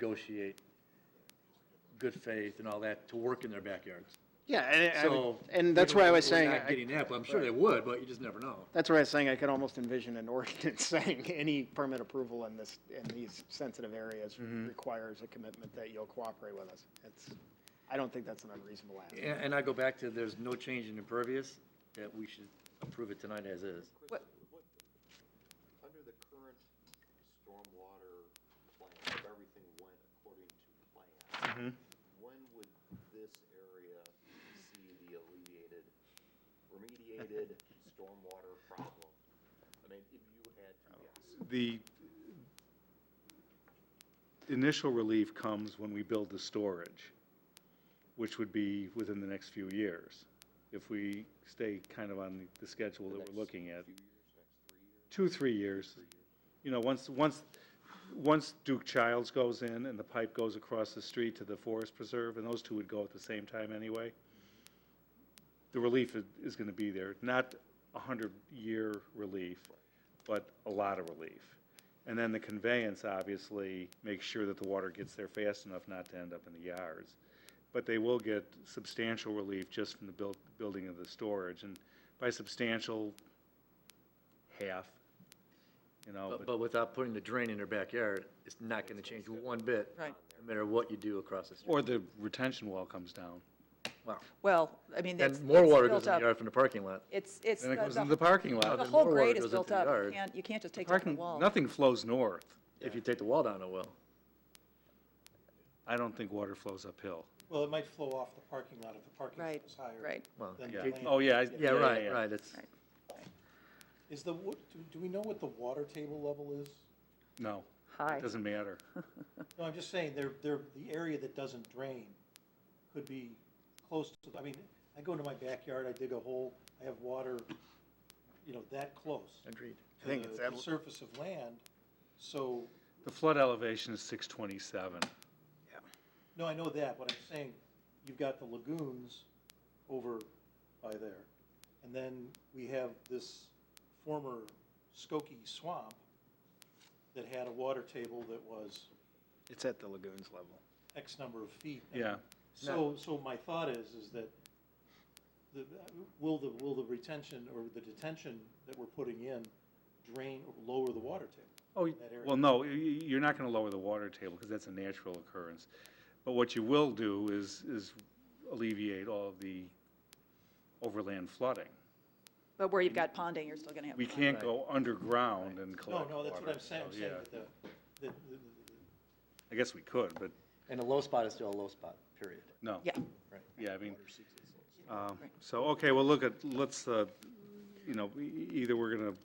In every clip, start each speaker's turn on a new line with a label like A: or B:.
A: negotiate good faith and all that to work in their backyards.
B: Yeah, and, I-
A: So.
B: and that's why I was
A: we're
B: saying,
A: not
B: I-
A: getting that, but I'm sure they would, but you just never know.
B: that's why I was saying I could almost envision an ordinance saying any permit approval in this, in these sensitive areas
A: Mm-hmm.
B: requires a commitment that you'll cooperate with us. It's, I don't think that's an unreasonable ask.
A: And, and I go back to, there's no change in impervious, that we should approve it tonight as is.
C: Under the current stormwater plan, if everything went according to plan, when would this area see the alleviated, remediated stormwater problem? I mean, if you had to guess,
D: The initial relief comes when we build the storage, which would be within the next few years, if we stay kind of on the- the schedule that we're looking at. Two, three years. You know, once, once, once Duke Childs goes in and the pipe goes across the street to the forest preserve, and those two would go at the same time anyway, the relief is, is gonna be there. Not a hundred-year relief, but a lot of relief. And then the conveyance, obviously, makes sure that the water gets there fast enough not to end up in the yards. But they will get substantial relief just from the buil- building of the storage, and by substantial, half, you know,
A: But,
D: but
A: but without putting the drain in their backyard, it's not gonna change one bit.
E: Right.
A: No matter what you do across the street.
D: or the retention wall comes down.
A: Wow.
E: Well, I mean, that's.
A: And more
E: it's
A: water
E: built
A: goes in the
E: up.
A: yard from the parking lot.
E: It's, it's.
D: Then it goes into the parking
E: The
D: lot.
A: and
E: whole
A: more water
E: grade
A: goes
E: is built
A: into the
E: up. You
A: yard.
E: can't, you can't just take down the
D: Parking,
E: wall.
D: nothing flows north.
A: If you take the wall down, it will.
D: I don't think water flows uphill.
F: Well, it might flow off the parking lot if the parking lot
E: Right,
F: is higher.
E: right.
A: Well,
F: than
A: yeah.
F: the land.
D: Oh, yeah, I-
A: Yeah, right,
D: yeah.
A: right, it's,
E: Right.
F: Is the, wa- do, do we know what the water table level is?
D: No,
E: High.
D: it doesn't matter.
F: No, I'm just saying, there, there, the area that doesn't drain could be close to, I mean, I go into my backyard, I dig a hole, I have water, you know, that close
A: agreed.
B: I think it's
F: to the
B: that-
F: surface of land. So,
D: The flood elevation is 627.
F: no, I know that, but I'm saying, you've got the lagoons over by there. And then we have this former Skokie swamp that had a water table that was
B: It's at the lagoons level.
F: X number of feet.
D: Yeah.
F: So, so my thought is, is that the, will the, will the retention or the detention that we're putting in drain or lower the water table?
D: Oh, y-
F: that area.
D: well, no, y- y- you're not going to lower the water table because that's a natural occurrence. But what you will do is, is alleviate all of the overland flooding.
E: But where you've got ponding, you're still going to have.
D: We
E: pond.
D: can't go underground and
F: No,
D: collect
F: no, that's what
D: water,
F: I'm saying, I'm
D: so,
F: saying
D: yeah.
F: that the, that the- the-
D: I guess we could, but
A: And a low spot is still a low spot, period.
D: no.
E: Yeah,
D: Yeah, I mean, um, so, okay, well, look at, let's, uh, you know, e- either we're going to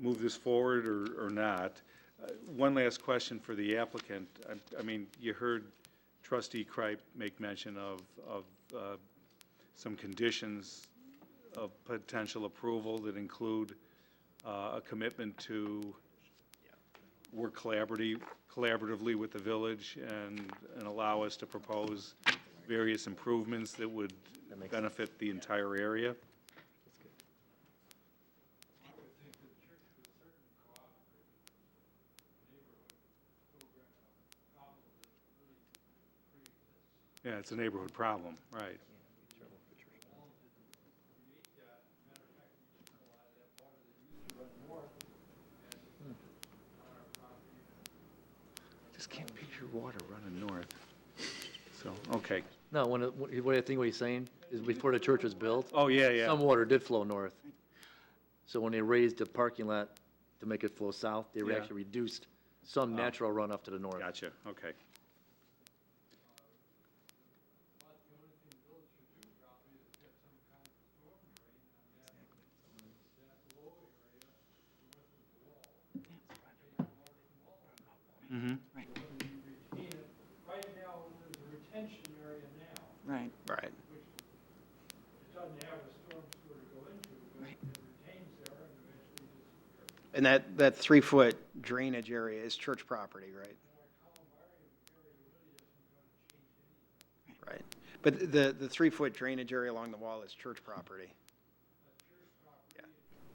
D: move this forward or, or not. Uh, One last question for the applicant. I- I mean, you heard trustee Kripe make mention of, of uh, some conditions of potential approval that include uh, a commitment to work collaboratively, collaboratively with the village and, and allow us to propose various improvements that would benefit the entire area. Yeah, it's a neighborhood problem, right. Just can't picture water running north. So, okay.
A: No, when, it- what what I think what he's saying is before the church was built,
D: Oh, yeah, yeah.
A: some water did flow north. So when they raised the parking lot to make it flow south, they
D: Yeah.
A: actually reduced some natural runoff to the north.
D: Gotcha, okay.
E: right,
G: Right now, there's a retention area now,
E: right.
B: Right.
G: it doesn't have a storm sewer to go into, but
E: Right.
G: it retains there and eventually disappears.
B: And that, that three-foot drainage area is church property, right? Right. But the, the three-foot drainage area along the wall is church property.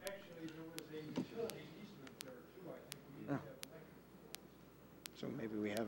G: Actually, there was a utility easement there too, I think we used to have electric
B: So maybe we have